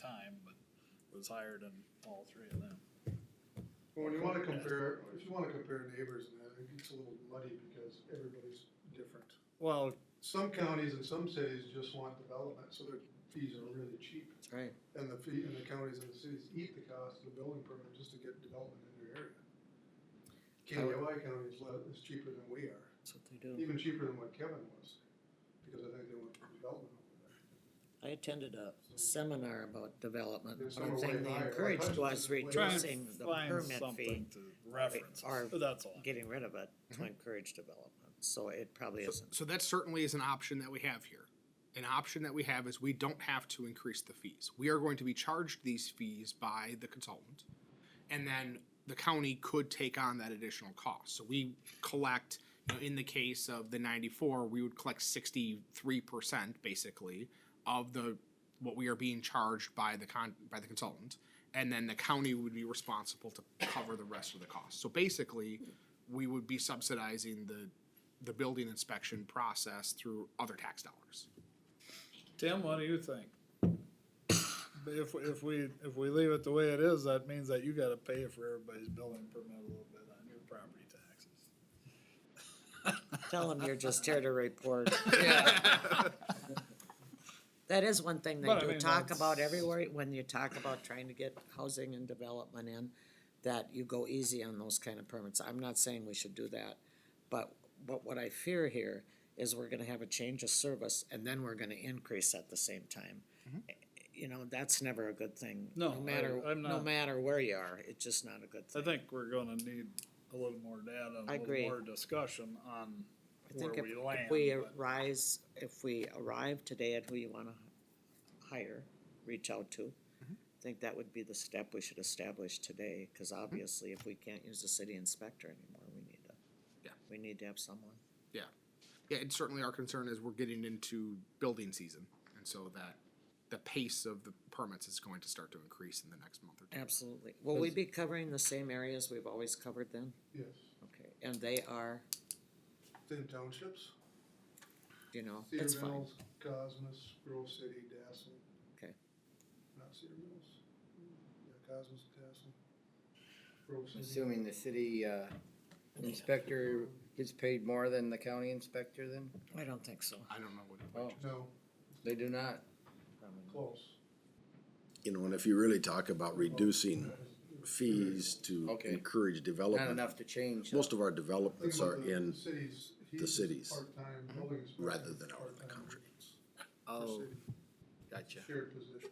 time, but was higher than all three of them. Well, when you wanna compare, if you wanna compare neighbors and that, it gets a little muddy because everybody's different. Well, Some counties and some cities just want development, so their fees are really cheap. that's right. And the fee, and the counties and the cities eat the cost of the building permit just to get development in their area. KDOI county is, le- is cheaper than we are, That's what they do. even cheaper than what Kevin was, because I think they want development over there. I attended a seminar about development. There's One some way thing they higher. encouraged was Try and Try and reducing the permit fee, to reference, Or- but that's all. getting rid of it to encourage development. So it probably So- isn't. So that certainly is an option that we have here. An option that we have is we don't have to increase the fees. We are going to be charged these fees by the consultant. And then the county could take on that additional cost. So we collect, you know, in the case of the ninety-four, we would collect sixty-three percent basically of the, what we are being charged by the con, by the consultant. And then the county would be responsible to cover the rest of the cost. So basically, we would be subsidizing the, the building inspection process through other tax dollars. Tim, what do you think? If, if we, if we leave it the way it is, that means that you gotta pay for everybody's building permit a little bit on your property taxes. Tell them you're just here to report. That is one thing they But I do mean, talk about that's- everywhere, when you talk about trying to get housing and development in, that you go easy on those kind of permits. I'm not saying we should do that, but, but what I fear here is we're gonna have a change of service and then we're gonna increase at the same time. You know, that's never a good thing. Mm-hmm. No, I- matter I'm No not- matter where you are, it's just not a good I thing. think we're gonna need a little more data, I a little agree. more discussion on I where think if, we land. if we but- arise, if we arrive today at who you wanna hire, reach out to. Mm-hmm. I think that would be the step we should establish today, cause Mm-hmm. obviously if we can't use the city inspector anymore, we need to. Yeah. We need to have someone. Yeah, and certainly our concern is we're getting into building season, and so that the pace of the permits is going to start to increase in the next month or two. Absolutely. Will we be covering the same areas we've always covered then? Yes, Okay, and they are, thin townships, you know, it's Cedar fine. Mills, Cosmos, Grove City, Dassel. Okay. Not Cedar Mills, yeah, Cosmos, Dassel, Grove City. Assuming the city uh, inspector gets paid more than the county inspector then? I don't think so. I don't know what. Oh. No, They do not. close. You know, and if you really talk about reducing fees to Okay. encourage Not development, enough to change. most of our Think developments about are the in, cities, he's cities part-time Mm-hmm. building inspector, rather than out in the part-time country. per Oh, city, gotcha. Shared position.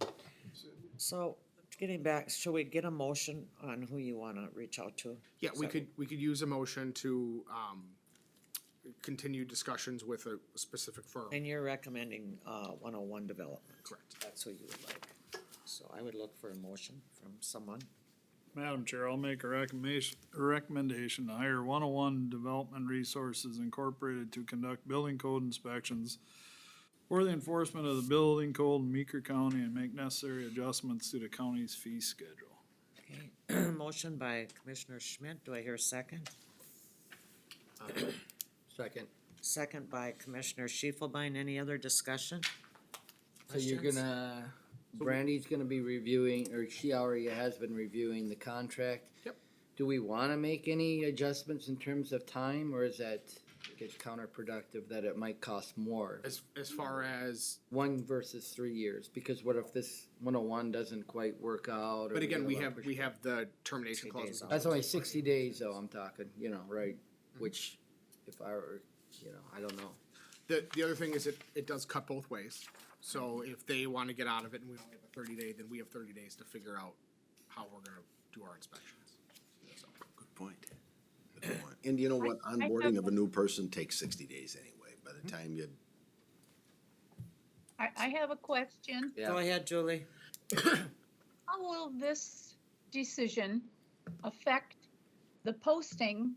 City. So, getting back, should we get a motion on who you wanna reach out to? Yeah, we could, we could use a motion to, um, continue discussions with a specific firm, And you're recommending, uh, one oh one development? correct? That's what you would like. So I would look for a motion from someone. Madam Chair, I'll make a recommendation, a recommendation to hire one oh one Development Resources Incorporated to conduct building code inspections for the enforcement of the building code in Meeker County and make necessary adjustments to the county's fee schedule. Okay, Motion by Commissioner Schmidt. Do I hear a second? Second. Second by Commissioner Schiefelbein. Any other discussion? So you're Questions? gonna, Brandy's gonna be reviewing, or she already has been reviewing the contract. Yep. Do we wanna make any adjustments in terms of time, or is that, it's counterproductive that it might cost more? As, as far as, One versus three years, because what if this one oh one doesn't quite work out? or but again, get a we lot have, of we have the termination Three clause. days with out. That's only sixty days Mm-hmm. though, I'm talking, you know, right, which, if I were, you know, I don't know. The, the other thing is it, it does cut both ways. So if they wanna get out of it and we only have a thirty day, then we have thirty days to figure out how we're gonna do our inspections. Good point. Good point. And you know what, I- I have onboarding of a one- new person takes sixty days anyway, by the time you I, I have a question. Yeah. Go ahead, Julie. How will this decision affect the posting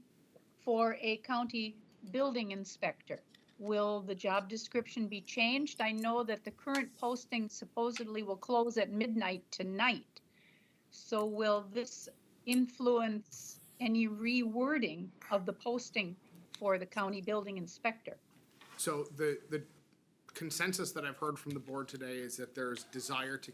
for a county building inspector? Will the job description be changed? I know that the current posting supposedly will close at midnight tonight. So will this influence any rewording of the posting for the county building inspector? So the, the consensus that I've heard from the board today is that there's desire to